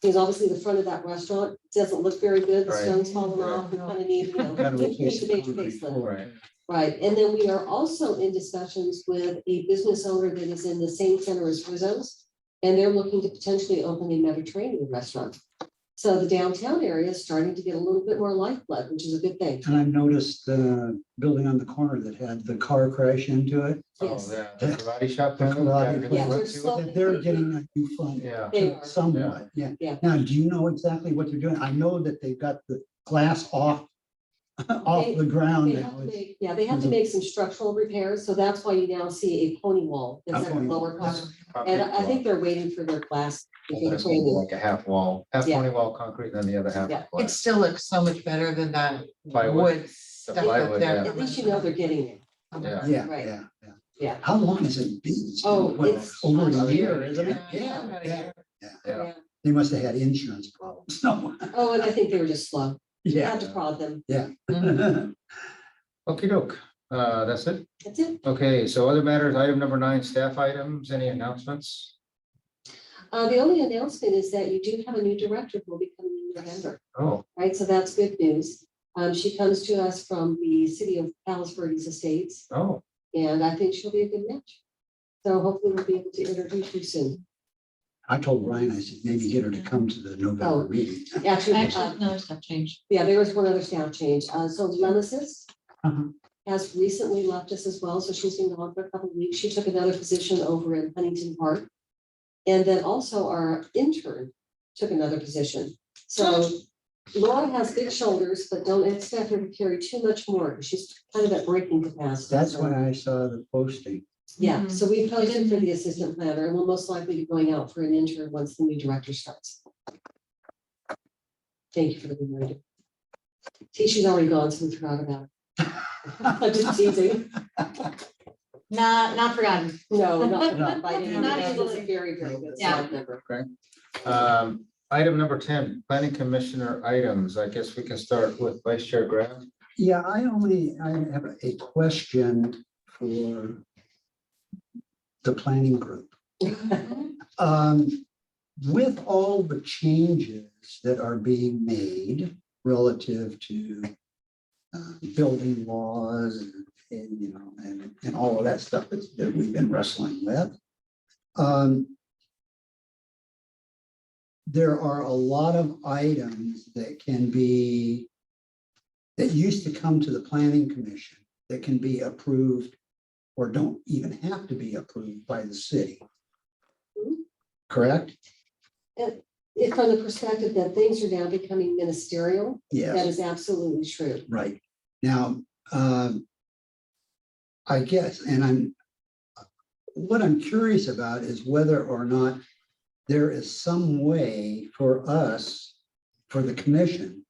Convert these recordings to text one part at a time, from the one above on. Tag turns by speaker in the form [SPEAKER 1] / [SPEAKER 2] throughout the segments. [SPEAKER 1] Because obviously the front of that restaurant doesn't look very good, the
[SPEAKER 2] Right.
[SPEAKER 1] stone's falling off, we kind of need, you know,
[SPEAKER 2] Kind of
[SPEAKER 1] need-
[SPEAKER 2] replace
[SPEAKER 1] need
[SPEAKER 2] the
[SPEAKER 1] a big
[SPEAKER 2] concrete
[SPEAKER 1] facelift.
[SPEAKER 2] floor. Right.
[SPEAKER 1] Right, and then we are also in discussions with a business owner that is in the same center as Rizzo's. And they're looking to potentially open a Mediterranean restaurant. So the downtown area is starting to get a little bit more lifeblood, which is a good thing.
[SPEAKER 3] And I noticed the building on the corner that had the car crash into it,
[SPEAKER 2] Oh,
[SPEAKER 1] Yes,
[SPEAKER 2] yeah, the karate shop.
[SPEAKER 3] The
[SPEAKER 2] down there,
[SPEAKER 3] karate
[SPEAKER 2] yeah,
[SPEAKER 3] place.
[SPEAKER 1] Yeah, they're
[SPEAKER 2] let's do it.
[SPEAKER 1] slow-
[SPEAKER 3] that they're getting a new fund
[SPEAKER 2] Yeah,
[SPEAKER 1] they are.
[SPEAKER 3] somewhat, yeah.
[SPEAKER 1] Yeah.
[SPEAKER 3] Now, do you know exactly what they're doing? I know that they've got the glass off,
[SPEAKER 1] They-
[SPEAKER 3] off the ground.
[SPEAKER 1] They
[SPEAKER 3] now.
[SPEAKER 1] have to make, yeah, they have to make some structural repairs, so that's why you now see a pony wall that's at a
[SPEAKER 3] Okay.
[SPEAKER 1] lower cost.
[SPEAKER 2] concrete
[SPEAKER 1] And I I think
[SPEAKER 2] wall.
[SPEAKER 1] they're waiting for their glass. to
[SPEAKER 2] Well,
[SPEAKER 1] get
[SPEAKER 2] that's gonna be
[SPEAKER 1] traded.
[SPEAKER 2] Like a half wall, half
[SPEAKER 1] Yeah.
[SPEAKER 2] twenty wall concrete, and then the other half.
[SPEAKER 1] Yeah.
[SPEAKER 2] ply.
[SPEAKER 4] It still looks so much better than that
[SPEAKER 2] Plywood.
[SPEAKER 4] wood stuff
[SPEAKER 2] plywood,
[SPEAKER 4] that they're.
[SPEAKER 2] yeah.
[SPEAKER 1] At least you know they're getting it,
[SPEAKER 2] Yeah.
[SPEAKER 3] Yeah,
[SPEAKER 1] Right.
[SPEAKER 3] yeah, yeah.
[SPEAKER 1] yeah.
[SPEAKER 3] How long has it been? It's been,
[SPEAKER 1] Oh,
[SPEAKER 3] what,
[SPEAKER 1] it's-
[SPEAKER 3] Over
[SPEAKER 2] Oh,
[SPEAKER 3] a
[SPEAKER 2] yeah.
[SPEAKER 3] year, isn't it?
[SPEAKER 4] Yeah, about a year.
[SPEAKER 2] Yeah.
[SPEAKER 3] They must have had insurance problems somewhere.
[SPEAKER 1] Oh, and I think they were just slow. You
[SPEAKER 3] Yeah.
[SPEAKER 1] Had to prod them.
[SPEAKER 4] Mm-hmm.
[SPEAKER 2] Okay, doke, uh, that's it.
[SPEAKER 1] That's it.
[SPEAKER 2] Okay, so other matters, item number nine, staff items, any announcements?
[SPEAKER 1] Uh, the only announcement is that you do have a new director who will be coming in November,
[SPEAKER 2] Oh,
[SPEAKER 1] right? So that's good news. Um, she comes to us from the city of Palos Verdes Estates,
[SPEAKER 2] oh,
[SPEAKER 1] and I think she'll be a good match. So hopefully we'll be able to introduce you soon.
[SPEAKER 3] I told Ryan, I said, maybe get her to come to the November
[SPEAKER 1] Oh.
[SPEAKER 3] meeting.
[SPEAKER 1] Actually, uh,
[SPEAKER 4] Actually, no, it's not changed.
[SPEAKER 1] yeah, there was one other staff change. Uh, so Lemesis
[SPEAKER 3] Uh-huh.
[SPEAKER 1] has recently left us as well, so she's been gone for a couple of weeks. She took another position over in Huntington Park. And then also our intern took another position. So Laura has big shoulders, but don't expect her to carry too much more. 'cause She's kind of at breaking capacity.
[SPEAKER 3] That's
[SPEAKER 1] So,
[SPEAKER 3] when I saw the posting.
[SPEAKER 1] Yeah,
[SPEAKER 4] Mhm.
[SPEAKER 1] so we posted for the assistant planner and we'll most likely be going out for an intern once the new director starts. Thank you for the reminder. See, she's already gone, so we forgot about her. I'm just teasing.
[SPEAKER 4] Not, not forgotten.
[SPEAKER 1] No, not by
[SPEAKER 4] Not
[SPEAKER 1] any means, it's
[SPEAKER 4] easily.
[SPEAKER 1] a very, very good
[SPEAKER 4] Yeah.
[SPEAKER 1] staff member.
[SPEAKER 2] um, item number ten, planning commissioner items, I guess we can start with vice chair Graham.
[SPEAKER 3] Yeah, I only, I have a question for the planning group.
[SPEAKER 4] Mm-hmm.
[SPEAKER 3] Um, with all the changes that are being made relative to uh, building laws and, and, you know, and, and all of that stuff that's- that we've been wrestling with. um, There are a lot of items that can be, that used to come to the planning commission that can be approved or don't even have to be approved by the city. Correct?
[SPEAKER 1] If from the perspective that things are now becoming ministerial, that
[SPEAKER 3] Yes,
[SPEAKER 1] is absolutely true.
[SPEAKER 3] right. Now, um, I guess, and I'm, what I'm curious about is whether or not there is some way for us, for the commission,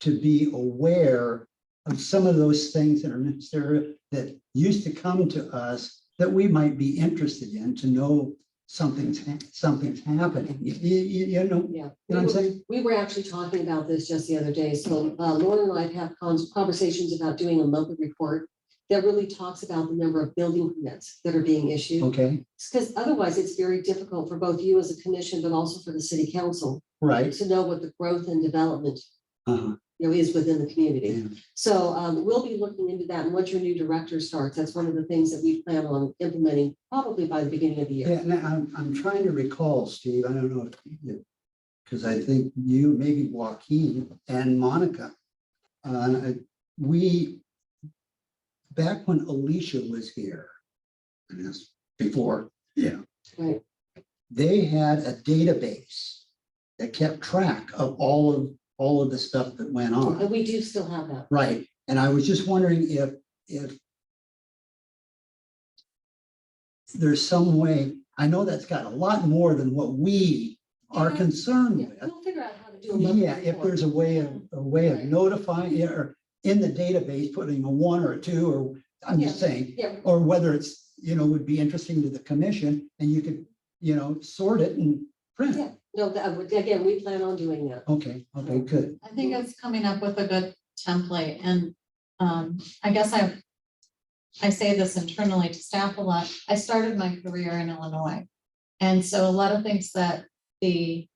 [SPEAKER 3] to be aware of some of those things that are necessary, that used to come to us, that we might be interested in, to know something's, hap- something's happening. You, you- you know,
[SPEAKER 1] Yeah.
[SPEAKER 3] you know what I'm saying?
[SPEAKER 1] We were actually talking about this just the other day, so uh, Laura and I have had cons- conversations about doing a monthly report that really talks about the number of building permits that are being issued.
[SPEAKER 3] Okay,
[SPEAKER 1] Because otherwise, it's very difficult for both you as a commission, but also for the city council
[SPEAKER 3] right.
[SPEAKER 1] to know what the growth and development
[SPEAKER 3] Uh-huh,
[SPEAKER 1] you know, is within the community.
[SPEAKER 3] Yeah.
[SPEAKER 1] So um, we'll be looking into that, and once your new director starts, that's one of the things that we plan on implementing probably by the beginning of the year.
[SPEAKER 3] Yeah, and I'm, I'm trying to recall, Steve, I don't know if you, because I think you, maybe Joaquin and Monica. Uh, we, back when Alicia was here, and that's before, yeah.
[SPEAKER 1] Right.
[SPEAKER 3] They had a database that kept track of all of, all of the stuff that went on.
[SPEAKER 1] And we do still have that.
[SPEAKER 3] Right, and I was just wondering if, if there's some way, I know that's got a lot more than what we are concerned
[SPEAKER 1] Yeah,
[SPEAKER 3] with.
[SPEAKER 1] We'll figure out how to do a monthly
[SPEAKER 3] Hmm. Yeah, if
[SPEAKER 1] report.
[SPEAKER 3] there's a way of, a way of
[SPEAKER 1] Right.
[SPEAKER 3] notifying, yeah, or in the database, putting a one or a two, or, I'm just saying,
[SPEAKER 1] Yeah,
[SPEAKER 3] or whether it's, you know, would be interesting to the commission, and you could, you know, sort it and print. it.
[SPEAKER 1] yeah. No, that- again, we plan on doing that.
[SPEAKER 3] Okay, okay, good.
[SPEAKER 4] I think it's coming up with a good template and um, I guess I. I say this internally to staff a lot. I started my career in Illinois. And so a lot of things that the